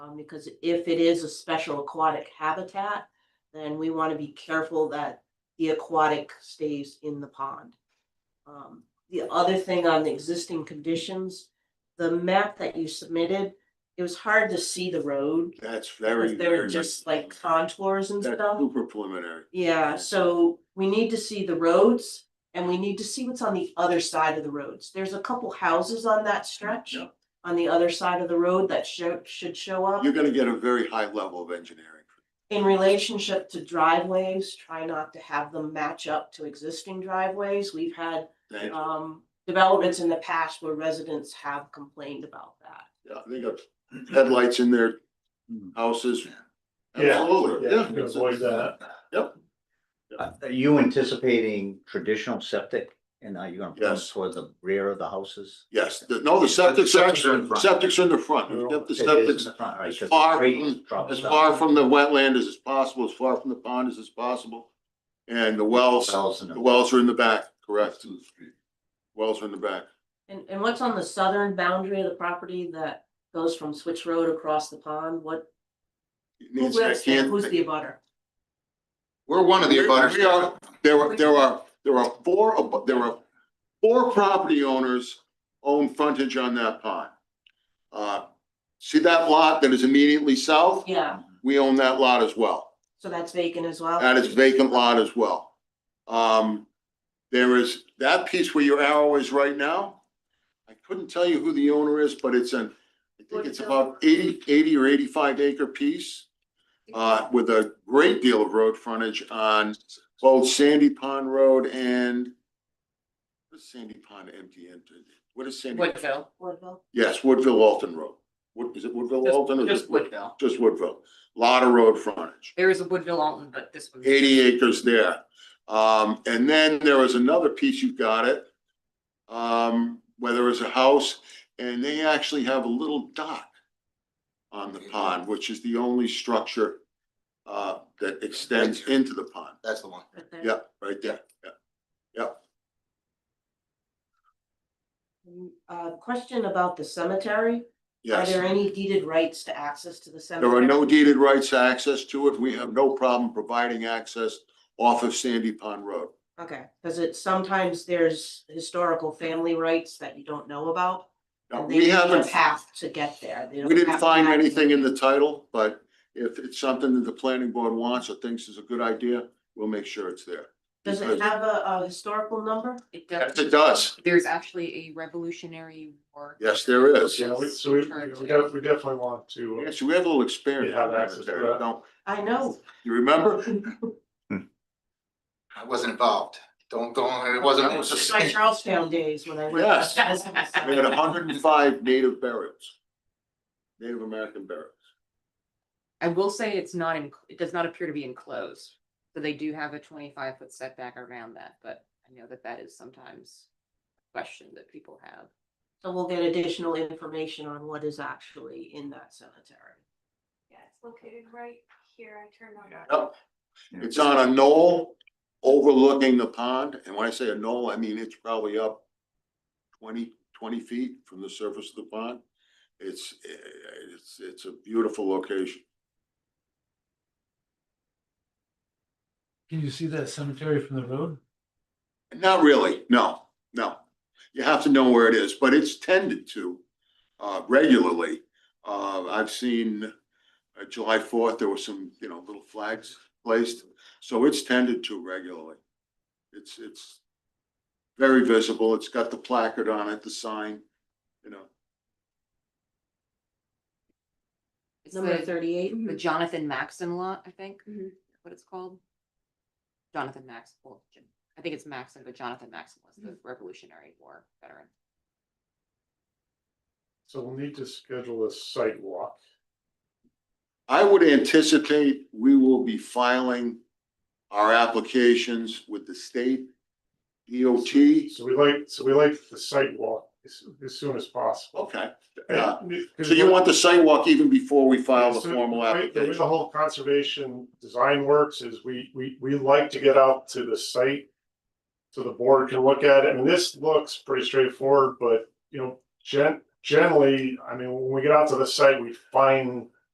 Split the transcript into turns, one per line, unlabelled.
Um, because if it is a special aquatic habitat, then we want to be careful that the aquatic stays in the pond. Um, the other thing on the existing conditions, the map that you submitted, it was hard to see the road.
That's very,
Because
very.
there were just like contours and
That's
stuff.
super preliminary.
Yeah, so we need to see the roads and we need to see what's on the other side of the roads. There's a couple houses on that stretch.
Yep.
On the other side of the road that should, should show up
You're gonna get a very high level of engineering.
in relationship to driveways, try not to have them match up to existing driveways. We've had
Thank you.
um developments in the past where residents have complained about that.
Yeah, They got headlights in their houses. Absolutely, yeah.
You can avoid that.
Uh, Are you anticipating traditional septic and are you gonna put them
Yes.
towards the rear of the houses?
Yes, the- no, the septic's
Septic's in
actually,
front.
septic's in the front. We've got the
It is in
septic's
the front, right,
as
'cause the
far
trees
from-
drop
as
down.
far from the wetland as is possible, as far from the pond as is possible. And the wells,
Wells in
the
the-
wells are in the back, correct? Wells are in the back.
And and what's on the southern boundary of the property that goes from Switch Road across the pond? What,
It
who
needs- I
lives there?
can't-
Who's the abutter?
We're one of the
We-
abutters.
we are- There are, there are, there are four, ab- there are four property owners own frontage on that pond. Uh, see that lot that is immediately south?
Yeah,
We own that lot as well.
so that's vacant as well?
That is vacant lot as well. Um, there is that piece where your arrow is right now. I couldn't tell you who the owner is, but it's an, I think it's about 80 80 or eighty-five acre piece. Uh, with a great deal of road frontage on both Sandy Pond Road and what is Sandy Pond empty into, what is Sandy?
Woodville,
Woodville?
Yes, Woodville Alton Road. What, is it Woodville Alton or?
just Woodville.
Just Woodville. Lot of road frontage.
There is a Woodville Alton, but this one.
eighty acres there. Um, and then there was another piece, you got it. Um, where there was a house and they actually have a little dock on the pond, which is the only structure uh, that extends into the pond.
That's the one.
right there?
Yeah, right there.
Mm, Uh, question about the cemetery. Are
Yes.
there any deeded rights to access to the
There
cemetery?
are no deeded rights to access to it. We have no problem providing access off of Sandy Pond Road.
Okay, because it's sometimes there's historical family rights that you don't know about.
Now,
and
we
They need a
haven't.
path to get there. They
We
don't
didn't
have to
find
have-
anything in the title, but if it's something that the planning board wants or thinks is a good idea, we'll make sure it's there.
Does it
because-
have a, a historical number?
It
Yes,
does,
it does.
there's actually a Revolutionary War.
Yes, there is.
Yeah, we, so we, we def- we definitely want to. uh,
Yes, we have a little experience.
You have
on that
access to
there,
that?
don't-
I know.
You remember?
I wasn't involved. Don't go, on. it wasn't.
That was
It's my Charlestown days when I went.
Yes. We had
Yes.
hundred and five native burials. Native American burials.
I will say it's not in, it does not appear to be enclosed, so they do have a twenty-five foot setback around that, but I know that that is sometimes a question that people have.
So we'll get additional information on what is actually in that cemetery.
Yeah, it's located right here. I turned on.
Yeah.
Yep. It's on a knoll overlooking the pond, and when I say a knoll, I mean it's probably up 20 20 feet from the surface of the pond. It's, eh, it's, it's a beautiful location.
Can you see that cemetery from the road?
Not really, no, no. You have to know where it is, but it's tended to uh, regularly. Uh, I've seen uh, July fourth, there were some, you know, little flags placed, so it's tended to regularly. It's, it's very visible. It's got the placard on it, the sign, you know.
It's
Number
the,
thirty-eight?
the Jonathan Maxon lot, I think, what it's called. Jonathan Max, well, Jon- I think it's Maxon, but Jonathan Maxon was the Revolutionary War veteran.
So we'll need to schedule a site walk.
I would anticipate we will be filing our applications with the state DOT.
So we like, so we like the site walk as, as soon as possible.
Okay, yeah.
And-
So you want the sidewalk even before we file the
So,
formal
right, The way the
application?
whole conservation design works is we, we, we like to get out to the site. So the board can look at it, and this looks pretty straightforward, but, you know, gen- generally, I mean, when we get out to the site, we find